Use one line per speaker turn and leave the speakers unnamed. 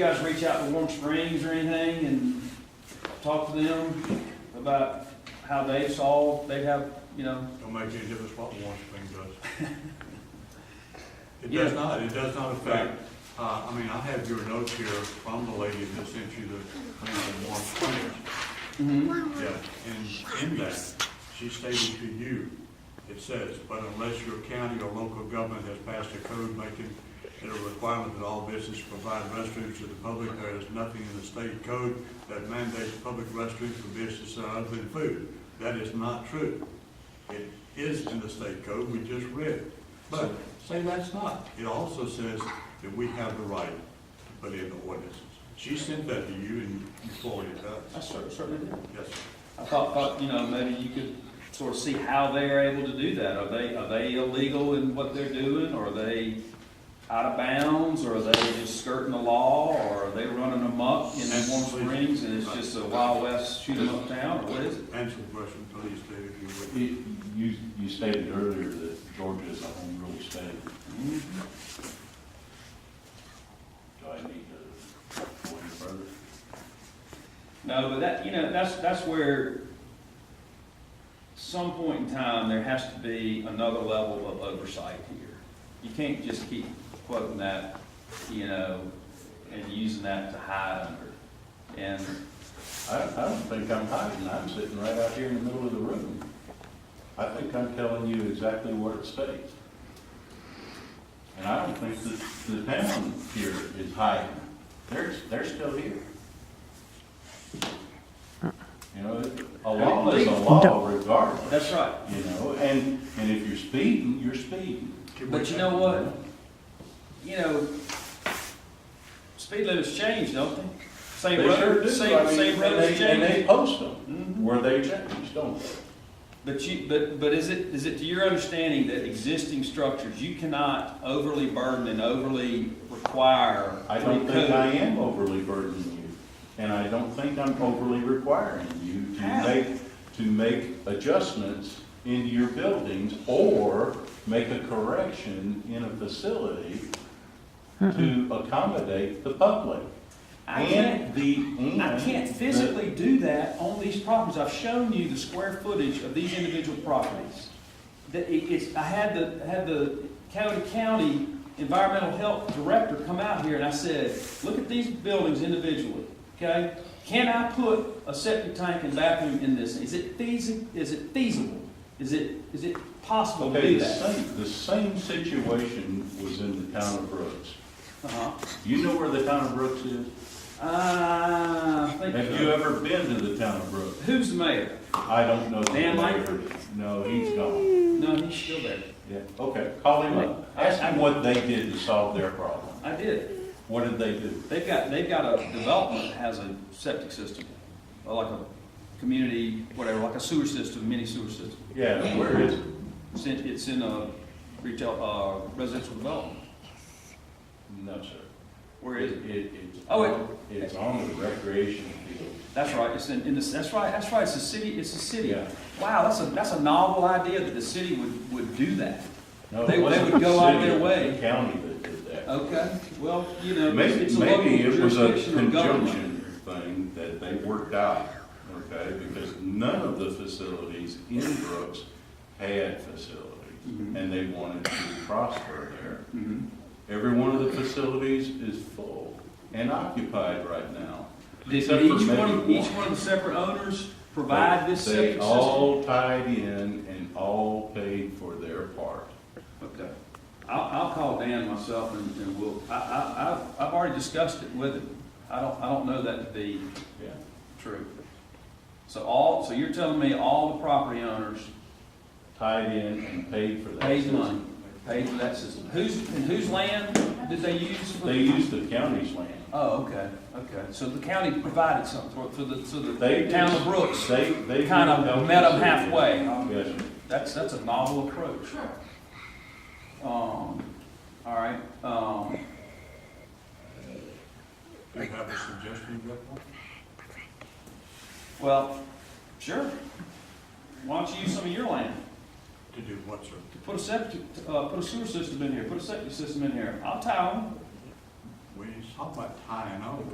You guys reach out to Warm Springs or anything and talk to them about how they solve, they have, you know,
Don't make any difference what Warren Springs does. It
Yeah.
does not, it does not affect, uh, I mean, I have your notes here from the lady that sent you the thing on Warren Springs.
mhm,
Yeah, and in that, she stated to you, it says, but unless your county or local government has passed a code making it a requirement that all businesses provide restrooms to the public, there is nothing in the state code that mandates public restrooms for businesses other than food. That is not true. It is in the state code, we just read. it. But say that's not. It also says that we have the right to put in the ordinances. She sent that to you and you forwarded it to us.
I cer- certainly do.
Yes, sir.
I thought, thought, you know, maybe you could sort of see how they're able to do that. Are they, are they illegal in what they're doing? Or are they out of bounds? Or are they just skirting the law? Or are they running amok in Warm Springs and it's just a Wild West shoot 'em up town? Or what is it?
Answer the question, please, David, if you would.
You, you you stated earlier that Georgia is a home rule state.
Mhm.
Do I need to go any further?
No, but that, you know, that's, that's where some point in time, there has to be another level of oversight here. You can't just keep quoting that, you know, and using that to hide under. And,
I, I don't think I'm hiding, I'm sitting right out here in the middle of the room. I think I'm telling you exactly what it states. And I don't think that the town here is hiding, they're, they're still here. You know, a law is a law regardless.
that's right.
You know, and, and if you're speeding, you're speeding.
Can we
But you
have-
know what? You know, speed limits change, don't they? Same
They sure
road,
do. I
same,
mean,
same
and
roads
they- And
change.
they post them
Mhm.
where they change, don't they?
But you, but, but is it, is it to your understanding that existing structures, you cannot overly burden and overly require?
I don't
through
think
code?
I am overly burdening you, and I don't think I'm overly requiring you to
How?
make, to make adjustments into your buildings or make a correction in a facility to accommodate the public.
I can't,
And the,
I
and
can't
the-
physically do that on these properties. I've shown you the square footage of these individual properties. That it- it's, I had the, I had the Coweta County Environmental Health Director come out here and I said, look at these buildings individually, okay? Can I put a septic tank and bathroom in this? Is it feasible, is it feasible? Is it, is it possible to
Okay,
do
the
that?
same, the same situation was in the town of Brooks.
Uh-huh.
You know where the town of Brooks is?
Uh, I think,
Have you ever been to the town of Brooks?
who's the mayor?
I don't know. the
Dan
mayor.
Langford?
No, he's gone.
No, he's still there.
Yeah, okay, call him up. Ask him what they did to solve their problem.
I did.
What did they do?
They've got, they've got a development that has a septic system, or like a community, whatever, like a sewer system, mini sewer system.
Yeah, where is it?
It's in, it's in a retail, uh, residential development.
No, sir.
Where is it?
It, it's,
Oh,
on- it's on the recreation field.
That's right, it's in, in this, that's right, that's right, it's a city, it's a city.
Yeah.
Wow, that's a, that's a novel idea that the city would, would do that.
No, it
They- they
wasn't
would
the
go out
city,
their
it was
way.
The county that did that.
Okay, well, you know, it's
Maybe,
it's a local
maybe it was a
jurisdiction or government.
conjunction thing that they worked out, okay? Because none of the facilities in Brooks had facilities,
Mhm.
and they wanted to prosper there.
Mhm.
Every one of the facilities is full and occupied right now.
Did
except for
each one,
maybe
each one of the separate owners provide this
They-
septic
They
system?
all tied in and all paid for their part.
Okay. I'll, I'll call Dan myself and, and we'll, I, I, I've, I've already discussed it with him. I don't, I don't know that to be
Yeah.
true. So all, so you're telling me all the property owners
Tied in and paid for that.
paid
system.
money, paid for that system? Whose, and whose land did they use? for-
They used the county's land.
Oh, okay, okay. So the county provided something for, for the, so
They
the
did-
town of Brooks,
They, they.
kind
helped
of met them
us.
halfway.
Yes, sir.
That's, that's a novel approach. Um, all right, um,
Do you have a suggestion, Jeff?
well, sure. Why don't you use some of your land?
To do what, sir?
Put a septic, uh, put a sewer system in here, put a septic system in here. I'll tie them.
we talk about tying on.